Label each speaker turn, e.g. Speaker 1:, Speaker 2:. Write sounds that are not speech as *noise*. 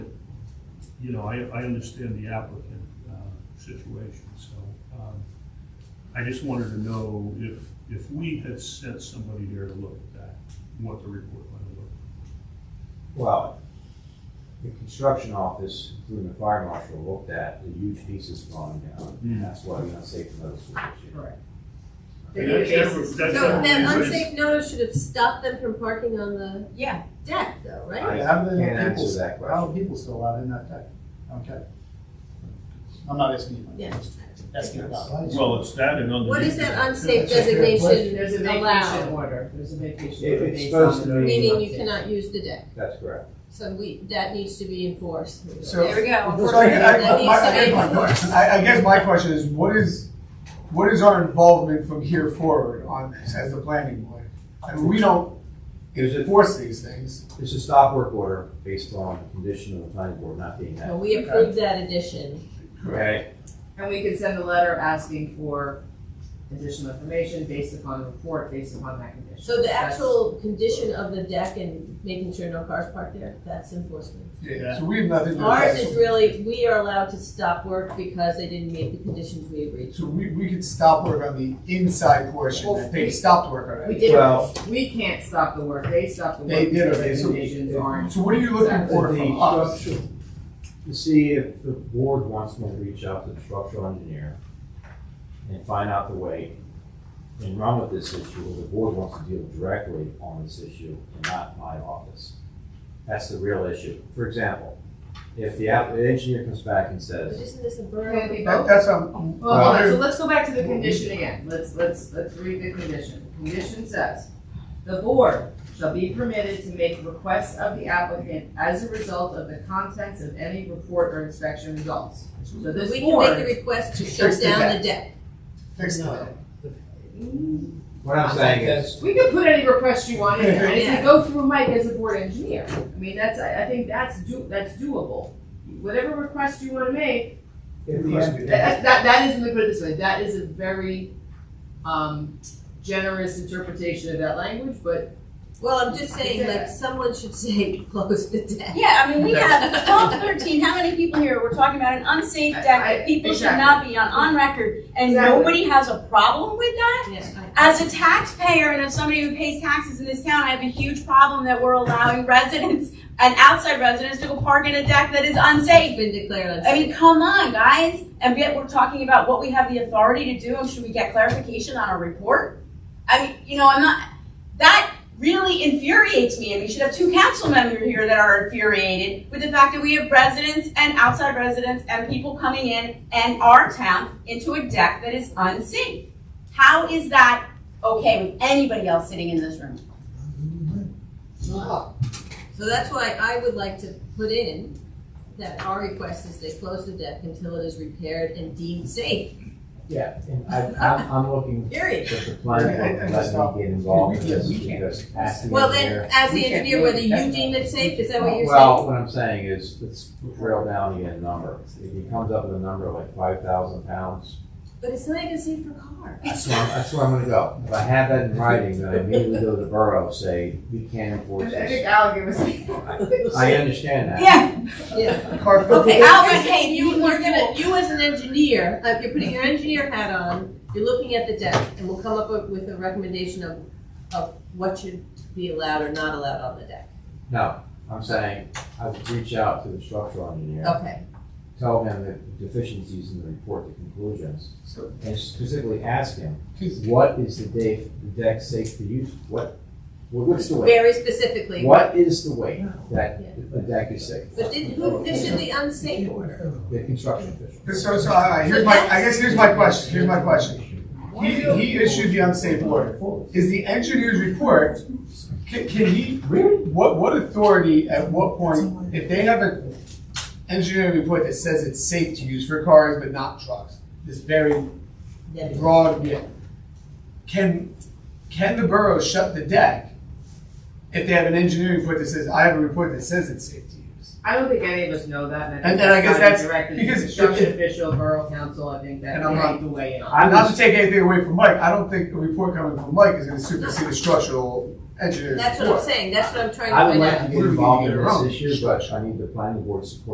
Speaker 1: you know, I, I understand the applicant, uh, situation, so, um, I just wanted to know if, if we had sent somebody there to look at that, what the report might have looked.
Speaker 2: Well, the construction office, including the fire marshal, looked at the huge pieces falling down,
Speaker 1: Mm.
Speaker 2: and that's why we unsafe the middle school this year.
Speaker 3: Correct.
Speaker 1: And that's never- that's
Speaker 4: So
Speaker 1: never
Speaker 4: then
Speaker 1: been raised.
Speaker 4: unsafe notice should have stopped them from parking on the
Speaker 3: Yeah,
Speaker 4: deck though, right?
Speaker 2: I
Speaker 3: Yeah, how do they-
Speaker 2: can't
Speaker 3: people-
Speaker 2: answer that
Speaker 3: how
Speaker 2: question.
Speaker 3: are people still out in that deck? Okay. I'm not asking you,
Speaker 4: Yeah.
Speaker 3: I'm asking about.
Speaker 1: Well, it's that and underneath.
Speaker 4: What is that
Speaker 1: it.
Speaker 4: unsafe
Speaker 5: That's a fair question.
Speaker 4: designation allowed?
Speaker 5: order, there's a vacation
Speaker 2: It- it's supposed to be-
Speaker 4: Meaning you cannot use the deck,
Speaker 2: That's correct.
Speaker 4: so we, that needs to be enforced.
Speaker 3: So-
Speaker 4: There we go.
Speaker 3: So I, I-
Speaker 4: That
Speaker 3: my- I guess my
Speaker 4: needs to
Speaker 3: question, I, I guess my question is, what is, what is our involvement from here forward on this as the planning board? I mean, we don't
Speaker 2: It's a,
Speaker 3: enforce these things.
Speaker 2: it's a stop work order based on the condition of the planning board not being
Speaker 4: be, well,
Speaker 2: met.
Speaker 4: we approve that addition.
Speaker 2: Okay,
Speaker 5: And we could send a letter asking for additional information based upon the report, based upon that condition.
Speaker 4: So the
Speaker 5: That's-
Speaker 4: actual condition of the deck and making sure no cars park there, that's enforcement.
Speaker 3: Yeah, so we have nothing to. do with
Speaker 4: Ours
Speaker 3: that.
Speaker 4: is really, we are allowed to stop work because they didn't meet the conditions we agreed to.
Speaker 3: So we, we could stop work on the inside portion that they stopped work
Speaker 5: We
Speaker 3: already.
Speaker 2: well,
Speaker 5: didn't, we can't stop the work, they stopped the work.
Speaker 3: They did
Speaker 5: because
Speaker 3: already, so-
Speaker 5: Recommendations aren't.
Speaker 3: So what are you looking
Speaker 5: Exactly.
Speaker 3: for from us?
Speaker 2: to see if the board wants me to reach out to the structural engineer and find out the way and run with this issue, or the board wants to deal directly on this issue and not my office. That's the real issue. For example, if the app- the engineer comes back and
Speaker 4: But
Speaker 2: says,
Speaker 4: isn't this a
Speaker 5: Can
Speaker 4: borough?
Speaker 5: we
Speaker 3: That-
Speaker 5: vote?
Speaker 3: That's, um,
Speaker 5: Well, hold on, so
Speaker 3: well,
Speaker 5: let's go back to the condition again, let's, let's, let's read the condition. The Condition says, the board shall be permitted to make requests of the applicant as a result of the contents of any report or inspection results. So
Speaker 4: But
Speaker 5: this
Speaker 4: we can make the
Speaker 5: board.
Speaker 4: request to
Speaker 3: Fix
Speaker 4: shut
Speaker 3: the
Speaker 4: down
Speaker 3: deck.
Speaker 4: the deck.
Speaker 3: fix
Speaker 6: No.
Speaker 3: that.
Speaker 2: what I'm saying is,
Speaker 5: Mm. We can put any request you want in there, and if you go through Mike as a board engineer, I mean, that's, I, I think that's do, that's doable. Whatever request you wanna make,
Speaker 2: if the
Speaker 3: Request
Speaker 2: en-
Speaker 3: we
Speaker 5: that, that, that is, let me put it this way, that is a very, um, generous interpretation of that language, but.
Speaker 4: Well, I'm just saying, like, someone should say, *laughs* close the deck.
Speaker 7: Yeah, I mean, we have twelve, thirteen, how many people here were talking about an unsafe deck
Speaker 5: I-
Speaker 7: that people should not be on, on record, and
Speaker 5: Exactly.
Speaker 7: nobody has a problem with that?
Speaker 4: Yeah, I-
Speaker 7: As a taxpayer and as somebody who pays taxes in this town, I have a huge problem that we're allowing residents and outside residents to go park in a deck that is
Speaker 4: It's
Speaker 7: unsafe.
Speaker 4: been declared unsafe.
Speaker 7: I mean, come on, guys, and yet we're talking about what we have the authority to do, and should we get clarification on our report? I mean, you know, I'm not, that really infuriates me, and we should have two council members here that are infuriated with the fact that we have residents and outside residents and people coming in and our town into a deck that is unsafe. How is that okay with anybody else sitting in this room?
Speaker 3: Oh.
Speaker 4: So that's why I would like to put in that our request is they close the deck until it is repaired and deemed safe,
Speaker 2: yeah, and I, I'm, I'm looking
Speaker 4: period.
Speaker 2: that the planning
Speaker 3: Yeah, I- I
Speaker 2: board
Speaker 3: just
Speaker 2: doesn't
Speaker 3: don't-
Speaker 2: get involved in
Speaker 3: we can't-
Speaker 2: this
Speaker 3: we can't.
Speaker 2: because asking.
Speaker 4: Well,
Speaker 2: them
Speaker 4: then,
Speaker 2: there-
Speaker 4: as the
Speaker 3: We can't
Speaker 4: engineer,
Speaker 3: do
Speaker 4: whether
Speaker 3: it.
Speaker 4: you
Speaker 3: That's
Speaker 4: deem it safe, is that what you're
Speaker 2: Well,
Speaker 4: saying?
Speaker 2: what I'm saying is, let's drill down again number. If he comes up with a number like five thousand pounds,
Speaker 4: But it's not even safe for
Speaker 7: *laughs*
Speaker 4: cars.
Speaker 2: that's where, I'm- that's where I'm gonna go. If I have that in writing, then I immediately go to the borough, say, we can't
Speaker 5: I
Speaker 2: enforce
Speaker 5: think
Speaker 2: this.
Speaker 5: Al gave us.
Speaker 2: I understand that.
Speaker 7: Yeah,
Speaker 4: Yeah.
Speaker 3: Car filter.
Speaker 7: Okay,
Speaker 4: Al,
Speaker 7: You're
Speaker 4: you're
Speaker 7: saying
Speaker 4: you,
Speaker 7: you
Speaker 4: you're
Speaker 7: were
Speaker 4: gonna,
Speaker 7: fooled.
Speaker 4: you as an engineer, like you're putting your engineer hat on, you're looking at the deck, and we'll come up with a recommendation of, of what should be allowed or not allowed on the deck.
Speaker 2: No, I'm saying, I would reach out to the structural engineer,
Speaker 4: Okay,
Speaker 2: tell him the deficiencies in the report, the conclusions,
Speaker 3: So-
Speaker 2: and specifically ask him,
Speaker 3: Please.
Speaker 2: what is the deck, the deck safe for use? What, what's the weight?
Speaker 4: very specifically,
Speaker 2: What is the weight that the deck is safe?
Speaker 4: but did, who, this should be unsafe order.
Speaker 2: The construction official.
Speaker 3: So, so, all right, here's my, I guess here's my question, here's my question. He, he issued the unsafe order. Is the engineer's report, can, can he, what, what authority, at what point, if they have an engineering report that says it's safe to use for cars but not trucks, this very
Speaker 4: Then-
Speaker 3: broad, yeah, can, can the borough shut the deck if they have an engineering report that says, I have a report that says it's safe to use?
Speaker 5: I don't think any of us know that, and I think
Speaker 3: And then I guess
Speaker 5: that's
Speaker 3: that's-
Speaker 5: not directly the
Speaker 3: because
Speaker 5: construction
Speaker 3: if-
Speaker 5: official, borough council, I think that
Speaker 3: And
Speaker 5: they
Speaker 3: I'm not-
Speaker 5: need to weigh in on.
Speaker 2: I
Speaker 3: Not to
Speaker 2: was,
Speaker 3: take anything away from Mike, I don't think a report coming from Mike is gonna supersede a structural engineer's report.
Speaker 4: That's what I'm saying, that's what I'm trying to
Speaker 2: I would
Speaker 4: find out.
Speaker 2: like to get involved in this issue, but I need the planning board support